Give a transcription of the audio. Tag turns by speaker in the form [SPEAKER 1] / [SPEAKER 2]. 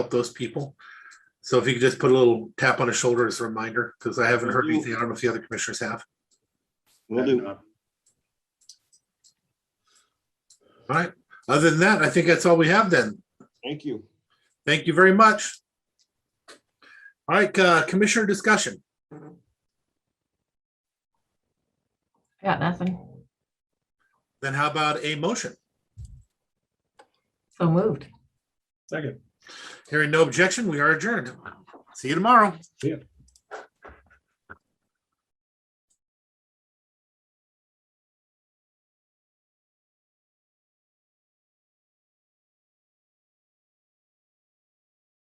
[SPEAKER 1] help those people. So if you could just put a little tap on his shoulder as a reminder, because I haven't heard anything. I don't know if the other commissioners have.
[SPEAKER 2] Will
[SPEAKER 3] And,
[SPEAKER 2] do.
[SPEAKER 3] uh,
[SPEAKER 1] All right. Other than that, I think that's all we have then.
[SPEAKER 2] Thank you.
[SPEAKER 1] Thank you very much. All right, uh, commissioner discussion.
[SPEAKER 4] Got nothing.
[SPEAKER 1] Then how about a motion?
[SPEAKER 4] So moved.
[SPEAKER 3] Second.
[SPEAKER 1] Hearing no objection, we are adjourned. See you tomorrow.
[SPEAKER 3] See ya.